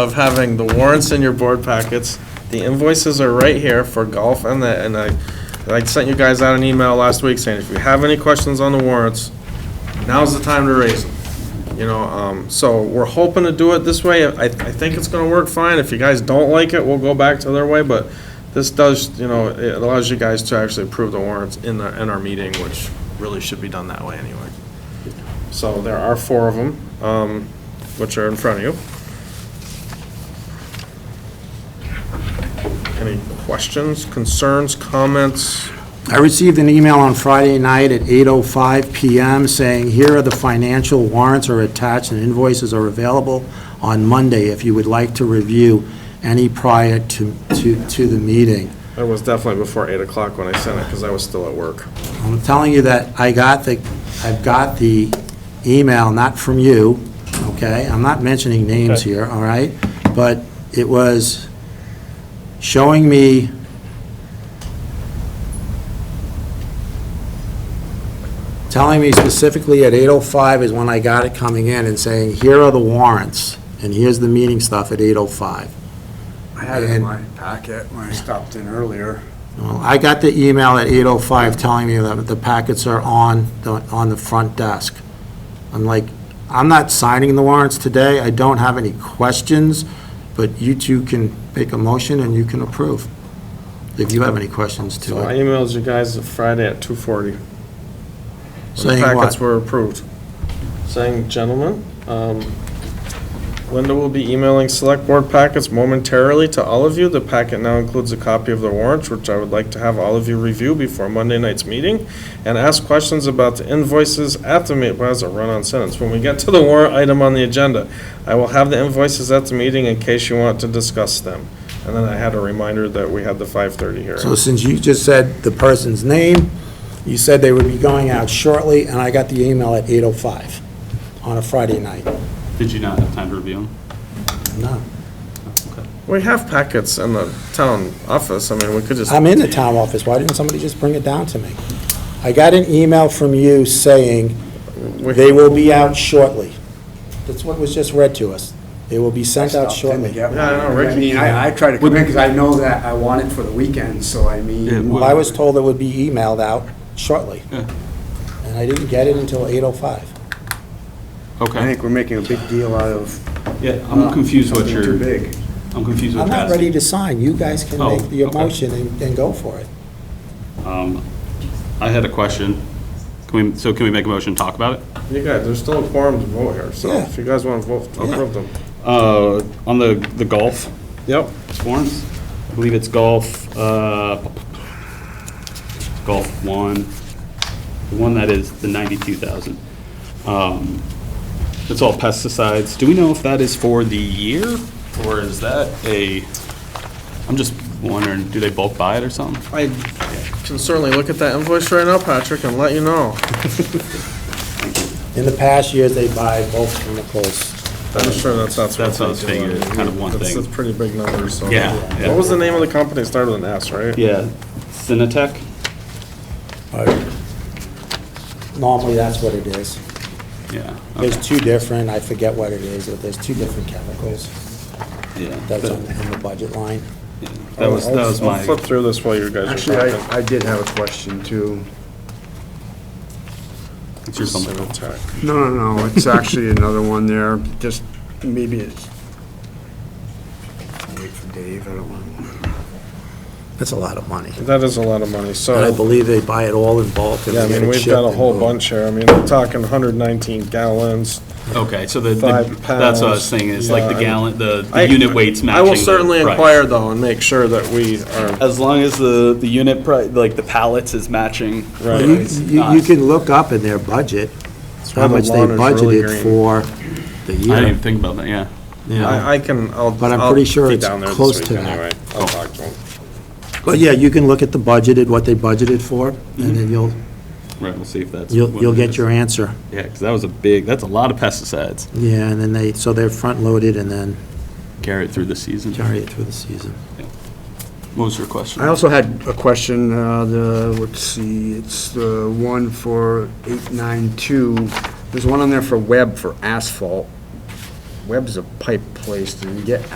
of having the warrants in your board packets. The invoices are right here for golf and the, and I, I sent you guys out an email last week saying if you have any questions on the warrants, now's the time to raise them. You know, um, so we're hoping to do it this way. I, I think it's gonna work fine. If you guys don't like it, we'll go back to their way, but this does, you know, it allows you guys to actually approve the warrants in the, in our meeting, which really should be done that way anyway. So there are four of them, um, which are in front of you. Any questions, concerns, comments? I received an email on Friday night at 8:05 PM saying, "Here are the financial warrants are attached and invoices are available on Monday if you would like to review any prior to, to, to the meeting." That was definitely before eight o'clock when I sent it, because I was still at work. I'm telling you that I got the, I've got the email, not from you, okay? I'm not mentioning names Okay. here, all right? But it was showing me telling me specifically at 8:05 is when I got it coming in and saying, here are the warrants, and here's the meeting stuff at 8:05. I had it in my packet when I stopped in earlier. Well, I got the email at 8:05 telling me that the packets are on, the on the front desk. I'm like, I'm not signing the warrants today, I don't have any questions, but you two can make a motion and you can approve, if you have any questions So I to it. emailed you guys Friday at two forty. The Saying packets what? were approved. Saying, gentlemen, um, Linda will be emailing select board packets momentarily to all of you. The packet now includes a copy of the warrants, which I would like to have all of you review before Monday night's meeting, and ask questions about the invoices at the meeting. Well, that's a run-on sentence. When we get to the warrant item on the agenda, I will have the invoices at the meeting in case you want to discuss them. And then I had a reminder that we had the five-thirty hearing. So since you just said the person's name, you said they would be going out shortly, and I got the email at 8:05 on a Friday night. Did you not have time to review them? No, We have packets in the town office, I mean, we could just, I'm in the town office, why didn't somebody just bring it down to me? I got an email from you saying, we They will be out shortly. That's what was just read to us. They will be sent out Stopped in shortly. to get one. Yeah, I know, Ricky- I mean, I, I try to come in because I know that I want it for the weekend, so I mean. Well, I was told it would be emailed out shortly. And I didn't get it until 8:05. I Okay. think we're making a big deal out of. Yeah, I'm confused what something Too you're, big. I'm confused what I'm you're not asking. ready to sign. You guys can Oh, make the okay. motion and and go for it. Um, I had a question. Can we, so can we make a motion and talk about it? you guys, there's still a quorum to vote here, so Yeah. if you guys want to vote, approve them. Uh, on the, the golf Yep. forms, I believe it's golf, uh, golf one, the one that is the ninety-two thousand. Um, it's all pesticides. Do we know if that is for the year or is that a, I'm just wondering, do they bulk buy it or something? I can certainly look at that invoice right now, Patrick, and let you know. In the past years, they buy both chemicals. I'm sure that's, that's. That's what I was they do. figuring, it's kind of one That's- thing. That's pretty big numbers, so. Yeah, yeah. What was the name of the company? It started with an S, right? Yeah, Cinetech? Normally, that's what it is. Yeah. There's two different, I forget what it is, but there's two different chemicals Yeah. that's Oh, on That on the budget line. that was, that I'll- was my, I'll flip through this while you guys Actually, are talking. I, I did have a question too. it's your something. Tech. No, no, no, it's actually another one there, just maybe it's. Wait for Dave, I don't want. That's a lot of money. That is a lot of money, so. And I believe they buy it all in bulk. and Yeah, I get mean, it we've shipped got a and whole boom. bunch here. I mean, we're talking hundred nineteen gallons, Okay, so the, the- Five that's what I pounds, was saying, it's like yeah, the I- gallon, the, I- the unit weights matching. I will the certainly price. inquire though and make sure that we are, As long as the, the unit price, like the pallets is matching. Right. You, it's you- not- you can look up in their budget, why how the much they lawn is really budgeted green. for the I didn't even year. think about that, yeah. you know. I, I can, I'll. But I'm I'll pretty sure be it's down there this close week to that. Anyway, I'll talk to 'em. But yeah, you can look at the budgeted, what they budgeted for, and then you'll, Right, we'll see if that's. you'll, Mm-hmm. what you'll it get is. your answer. Yeah, because that was a big, that's a lot of pesticides. Yeah, and then they, so they're front-loaded and then Carry it through the season. carry it through the season. What was your question? I also had a question, uh, the, let's see, it's the one for eight nine two, there's one on there for web for asphalt. Webb's a pipe place. Did we get